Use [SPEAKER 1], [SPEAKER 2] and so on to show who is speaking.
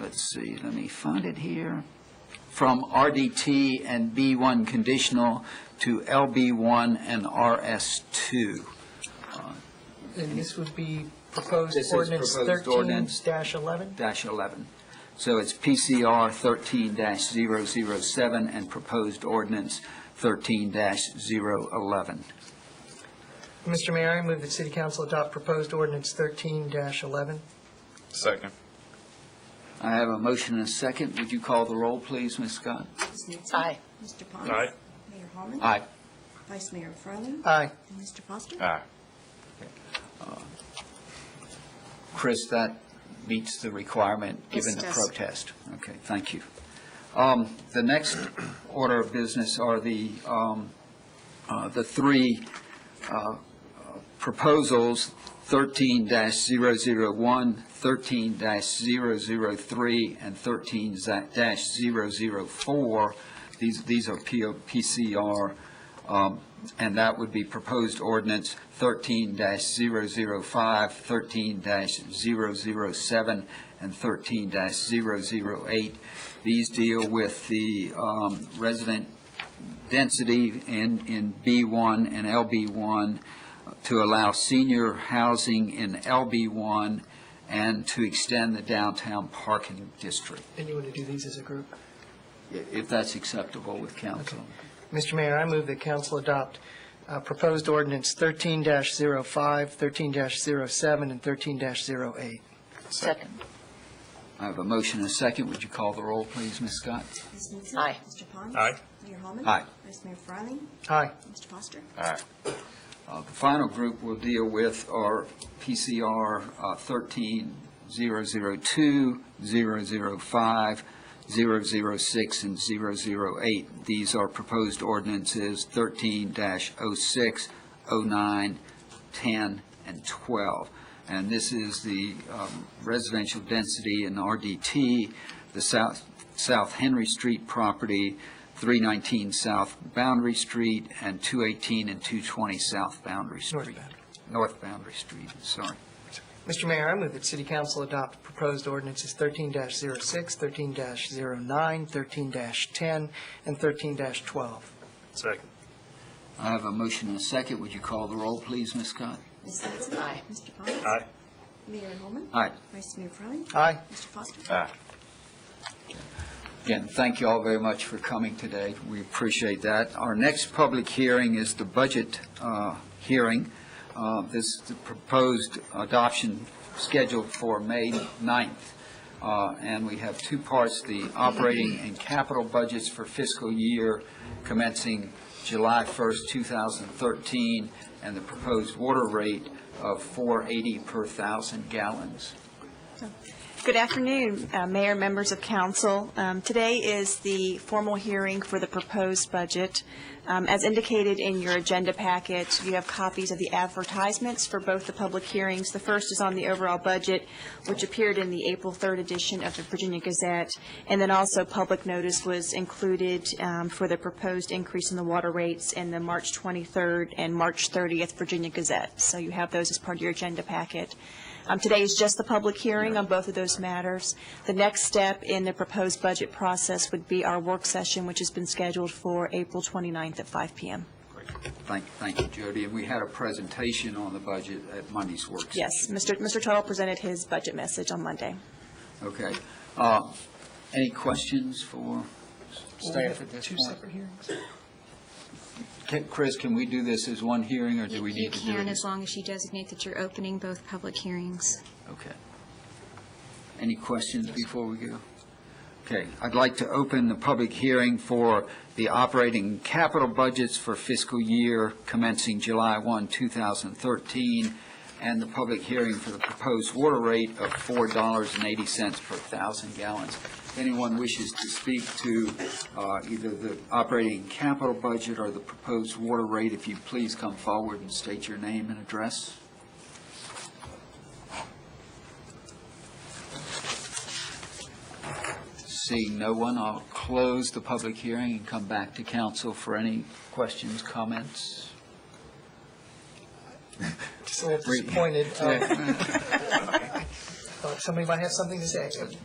[SPEAKER 1] let's see, let me find it here, from RDT and B1 conditional to LB1 and RS2.
[SPEAKER 2] And this would be proposed
[SPEAKER 1] This is
[SPEAKER 2] ordinance
[SPEAKER 1] proposed
[SPEAKER 2] thirteen
[SPEAKER 1] ordinance.
[SPEAKER 2] dash eleven?
[SPEAKER 1] dash 11. So it's PCR 13 dash 007 and proposed ordinance 13 dash 011.
[SPEAKER 2] Mr. Mayor, I move that city council adopt proposed ordinance thirteen dash eleven.
[SPEAKER 3] Second.
[SPEAKER 1] I have a motion and a second. Would you call the roll, please, Ms. Scott?
[SPEAKER 4] Ms. Nancy.
[SPEAKER 2] Aye.
[SPEAKER 4] Mr. Pons.
[SPEAKER 3] Aye.
[SPEAKER 4] Mayor Holman.
[SPEAKER 1] Aye.
[SPEAKER 4] Vice Mayor Fryland.
[SPEAKER 2] Aye.
[SPEAKER 4] And Mr. Foster.
[SPEAKER 3] Aye.
[SPEAKER 1] Chris, that meets the requirement
[SPEAKER 4] Yes,
[SPEAKER 1] given
[SPEAKER 4] it
[SPEAKER 1] the
[SPEAKER 4] does.
[SPEAKER 1] protest. Okay, thank you. Um, The next order of business are the, um, uh, the three uh, proposals, 13-001, 13-003, and 13-004. These, these are PO PCR, um, and that would be proposed ordinance 13-005, 13-007, and 13-008. These deal with the um, resident density in, in B1 and LB1 to allow senior housing in LB1 and to extend the downtown parking district,
[SPEAKER 2] And you want to do these as a group?
[SPEAKER 1] i- if that's acceptable with council.
[SPEAKER 2] Mr. Mayor, I move that council adopt uh, proposed ordinance thirteen dash zero five, thirteen dash zero seven, and thirteen dash zero eight.
[SPEAKER 5] Second.
[SPEAKER 1] I have a motion and a second. Would you call the roll, please, Ms. Scott?
[SPEAKER 4] Ms. Nancy.
[SPEAKER 5] Aye.
[SPEAKER 4] Mr. Pons.
[SPEAKER 3] Aye.
[SPEAKER 4] Mayor Holman.
[SPEAKER 1] Aye.
[SPEAKER 4] Vice Mayor Fryland.
[SPEAKER 2] Aye.
[SPEAKER 4] Mr. Foster.
[SPEAKER 3] Aye.
[SPEAKER 1] Uh, The final group we'll deal with are PCR uh, 13, 002, 005, 006, and 008. These are proposed ordinances 13-06, 09, 10, and 12. And this is the um, residential density in RDT, the South South Henry Street property, 319 South Boundary Street, and 218 and 220 South Boundary Street.
[SPEAKER 2] North Boundary.
[SPEAKER 1] North Boundary Street, sorry.
[SPEAKER 2] Mr. Mayor, I move that city council adopt proposed ordinances thirteen dash zero six, thirteen dash zero nine, thirteen dash ten, and thirteen dash twelve.
[SPEAKER 3] Second.
[SPEAKER 1] I have a motion and a second. Would you call the roll, please, Ms. Scott?
[SPEAKER 4] Ms. Nancy.
[SPEAKER 5] Aye.
[SPEAKER 4] Mr. Pons.
[SPEAKER 3] Aye.
[SPEAKER 4] Mayor Holman.
[SPEAKER 1] Aye.
[SPEAKER 4] Vice Mayor Fryland.
[SPEAKER 2] Aye.
[SPEAKER 4] Mr. Foster.
[SPEAKER 3] Aye.
[SPEAKER 1] Again, thank you all very much for coming today. We appreciate that. Our next public hearing is the budget uh, hearing. Uh, This, the proposed adoption scheduled for May 9th. Uh, And we have two parts, the operating and capital budgets for fiscal year commencing July 1st, 2013, and the proposed water rate of 480 per thousand gallons.
[SPEAKER 6] Good afternoon, uh, Mayor, members of council. Um, Today is the formal hearing for the proposed budget. Um, As indicated in your agenda packet, you have copies of the advertisements for both the public hearings. The first is on the overall budget, which appeared in the April 3rd edition of the Virginia Gazette, and then also public notice was included um, for the proposed increase in the water rates in the March 23rd and March 30th Virginia Gazette. So you have those as part of your agenda packet. Um, Today is just the public hearing on both of those matters. The next step in the proposed budget process would be our work session, which has been scheduled for April 29th at 5 PM.
[SPEAKER 1] Thank, thank you, Jody. And we had a presentation on the budget at Monday's work session.
[SPEAKER 6] Yes, Mr. Mr. Tuttle presented his budget message on Monday.
[SPEAKER 1] Okay. Uh, Any questions for staff at this
[SPEAKER 2] Two
[SPEAKER 1] point?
[SPEAKER 2] separate hearings.
[SPEAKER 1] Can- Chris, can we do this as one hearing, or do we
[SPEAKER 7] You
[SPEAKER 1] need to do it?
[SPEAKER 7] can,
[SPEAKER 1] as-
[SPEAKER 7] as long as you designate that you're opening both public hearings.
[SPEAKER 1] Okay. Any questions before we go? Okay, I'd like to open the public hearing for the operating capital budgets for fiscal year commencing July 1, 2013, and the public hearing for the proposed water rate of $4.80 per thousand gallons. If anyone wishes to speak to uh, either the operating capital budget or the proposed water rate, if you please come forward and state your name and address. Seeing no one, I'll close the public hearing and come back to council for any questions, comments.
[SPEAKER 2] uh, Just a little disappointed. um, thought Somebody might have something to say.